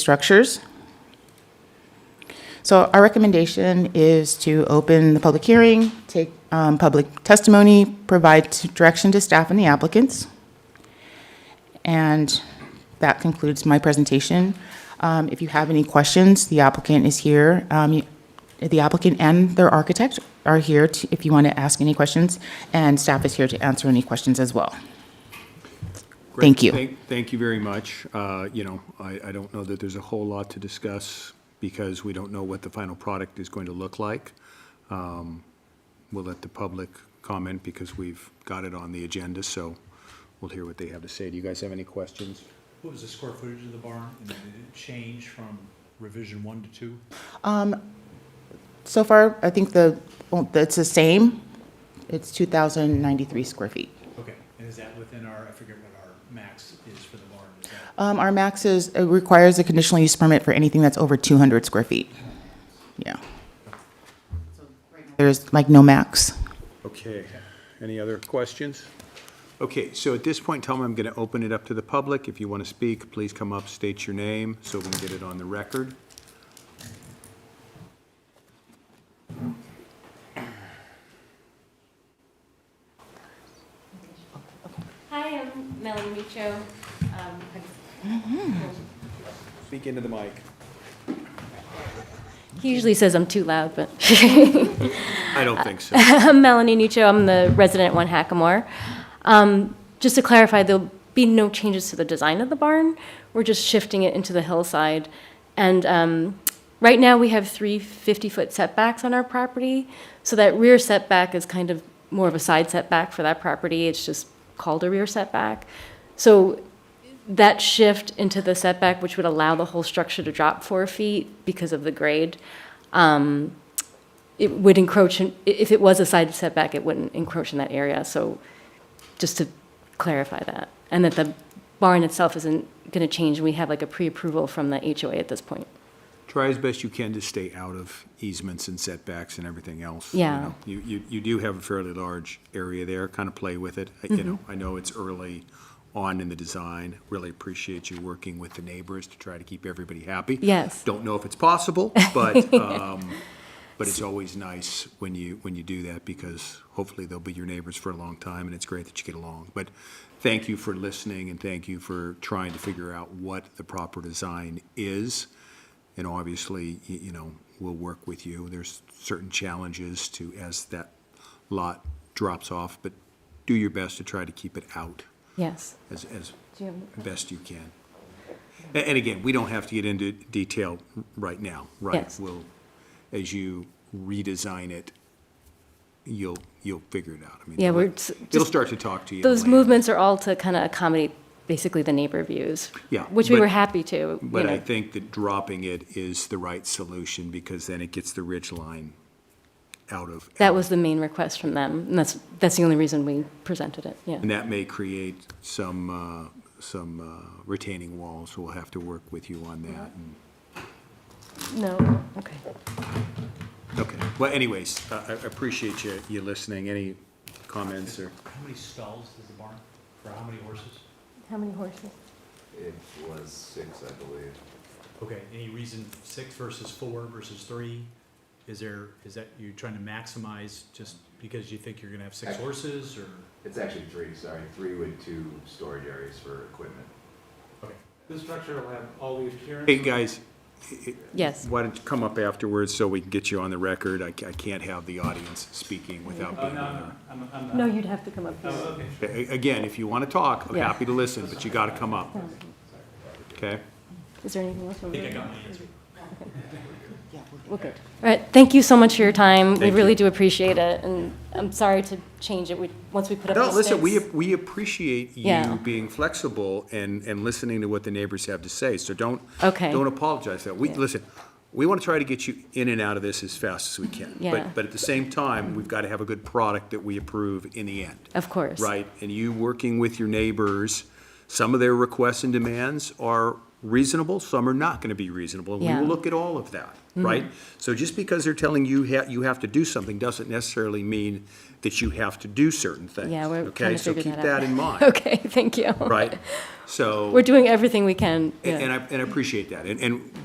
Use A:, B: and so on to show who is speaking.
A: structures. So our recommendation is to open the public hearing, take um, public testimony, provide t- direction to staff and the applicants. And that concludes my presentation. Um, If you have any questions, the applicant is here. Um, you- The applicant and their architect are here to- if you want to ask any questions, and staff is here to answer any questions as well.
B: Great.
A: Thank you.
B: Thank you very much. Uh, You know, I, I don't know that there's a whole lot to discuss because we don't know what the final product is going to look like. Um, We'll let the public comment because we've got it on the agenda, so we'll hear what they have to say. Do you guys have any questions?
C: What was the square footage of the barn? And Did it change from revision one to two?
A: So far, I think the, well, it's the same. It's 2,093 square feet.
C: Okay, and is that within our, I forget what our max is for the barn? Is that-
A: Um, Our max is, it requires a conditional use permit for anything that's over 200 square feet. Yeah. There's like no max.
B: Okay, any other questions? Okay, so at this point, Tom, I'm going to open it up to the public. If you want to speak, please come up, state your name, so we can get it on the record.
D: Hi, I'm Melanie Micho. Um,
B: Speak into the mic.
D: He usually says I'm too loud, but
B: I don't think so.
D: I'm Melanie Micho. I'm the resident at One Hackamore. Um, just to clarify, there'll be no changes to the design of the barn. We're just shifting it into the hillside. And um, right now, we have three 50-foot setbacks on our property. So that rear setback is kind of more of a side setback for that property. It's just called a rear setback. So that shift into the setback, which would allow the whole structure to drop four feet because of the grade, um, it would encroach, in- i- if it was a side setback, it wouldn't encroach in that area. So just to clarify that, and that the barn itself isn't going to change. We have like a pre-approval from the HOA at this point.
B: try as best you can to stay out of easements and setbacks and everything else. you
D: Yeah.
B: know. You, you, you do have a fairly large area there, kind of play with it, I- you know, I know it's early on in the design, really appreciate you working with the neighbors to try to keep everybody happy.
D: Yes.
B: Don't know if it's possible, but, um, but it's always nice when you, when you do that, because hopefully they'll be your neighbors for a long time, and it's great that you get along. But thank you for listening, and thank you for trying to figure out what the proper design is. And obviously, y- you know, we'll work with you. There's certain challenges to, as that lot drops off, but do your best to try to keep it out
D: Yes.
B: as, as
D: Do you
B: best you can. A- And again, we don't have to get into detail right now, right?
D: Yes.
B: We'll, as you redesign it, you'll, you'll figure it out. I mean,
D: Yeah, we're
B: it'll-
D: s-
B: It'll
D: just-
B: start to talk to you.
D: Those
B: movements.
D: movements are all to kind of accommodate basically the neighbor views.
B: Yeah,
D: Which we
B: but-
D: were happy to. you
B: But I
D: know.
B: think that dropping it is the right solution, because then it gets the ridge line out of.
D: That was the main request from them, and that's, that's the only reason we presented it, yeah.
B: And that may create some, uh, some uh, retaining walls, so we'll have to work with you on
D: Mm-hmm.
B: that. and-
D: No, okay.
B: Okay, well anyways, I I appreciate you, you listening. Any comments or?
C: How many stalls does the barn, for how many horses?
D: How many horses?
E: It was six, I believe.
C: Okay, any reason six versus four versus three? Is there, is that, you're trying to maximize just because you think you're gonna have six horses or?
E: It's actually three, sorry, three with two storage areas for equipment.
C: Okay.
F: This structure will have all-leaf appearance.
B: Hey, guys,
D: Yes,
B: why don't you come up afterwards so we can get you on the record? I ca- I can't have the audience speaking without
F: Oh,
B: being
F: no, no,
B: on
F: I'm, I'm
D: no,
F: not.
D: you'd have to come up
F: Oh,
D: here.
F: okay.
B: there. A- a- Again, if you want to talk, I'm
D: Yeah.
B: happy to listen, but you got to come up, okay?
D: Is there anything else?
C: I think I got my answer.
D: We're good. All right, thank you so much for your time. We
B: Thank
D: really
B: you.
D: do appreciate it, and I'm sorry to change it, we, once we put up the
B: No,
D: stakes.
B: listen, we, ap- we appreciate
D: Yeah.
B: you being flexible and, and listening to what the neighbors have to say, so don't,
D: Okay.
B: don't apologize. for that. We,
D: Yeah.
B: listen, we want to try to get you in and out of this as fast as we can.
D: Yeah.
B: But, but at the same time, we've got to have a good product that we approve in the end.
D: Of course.
B: Right, and you working with your neighbors, some of their requests and demands are reasonable, some are not gonna be reasonable, and we
D: Yeah. Mm-hmm.
B: will look at all of that, right? So just because they're telling you ha, you have to do something, doesn't necessarily mean that you have to do certain things.
D: Yeah, we're
B: okay?
D: trying to figure that out.
B: So keep that in mind,
D: Okay, thank you.
B: right? So,
D: We're doing everything we can. yeah.
B: and I, and I appreciate that, and, and